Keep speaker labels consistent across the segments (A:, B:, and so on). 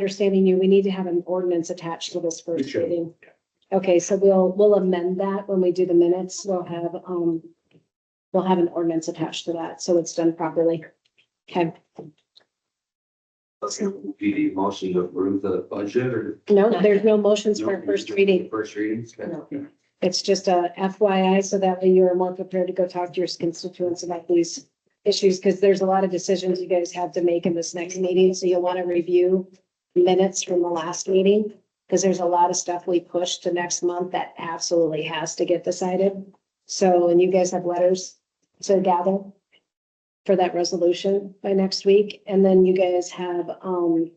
A: understanding you, we need to have an ordinance attached to this
B: We
A: first
B: should,
A: reading. Okay, so we'll, we'll amend that when we do the minutes. We'll have, um, we'll have an ordinance attached to that, so it's done properly. Okay,
C: Okay, do you need a motion to approve the budget or?
A: no, there's no motions for
C: No,
A: first
C: just
A: reading.
C: First readings? okay.
A: It's just a FYI, so that way you're more prepared to go talk to your constituents about these issues, because there's a lot of decisions you guys have to make in this next meeting, so you'll want to review minutes from the last meeting, because there's a lot of stuff we pushed to next month that absolutely has to get decided. So, and you guys have letters to gather for that resolution by next week, and then you guys have, um,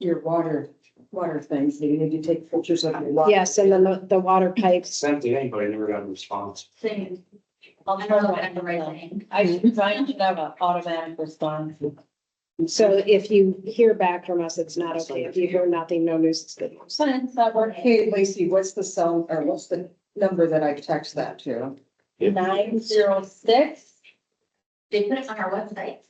D: your water, water things, that you need to take pictures of your water.
A: yes, and then the, the water pipes.
C: Sent to anybody, never got a response.
E: Same. I'll try to find the right thing.
D: I should try and have an automatic response.
A: So if you hear back from us, it's not okay. If you hear nothing, no news, it's good news.
E: Since that worked,
D: Hey, Lacey, what's the cell, or what's the number that I text that to?
E: nine zero six. They put it on our website.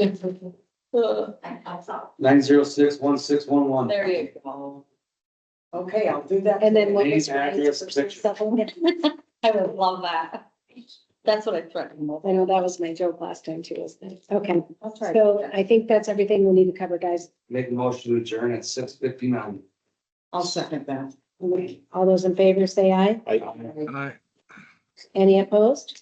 E: I I saw.
C: Nine zero six one six one one.
E: There you
D: go. Okay, I'll do that.
A: And then what
C: Name,
A: was
C: address, and picture.
A: I
E: I would love that. That's what I threatened. with.
A: know that was my joke last time too, wasn't it? Okay,
D: I'll try.
A: so I think that's everything we need to cover, guys.
C: Make a motion to adjourn at six fifty nine.
D: I'll second that.
A: All those in favor say aye.
F: Aye.
A: Any opposed?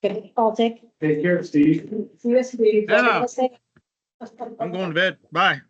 A: Good, I'll take.
B: Take care, Steve.
A: Yes, we.
F: Yeah. I'm going to bed. Bye.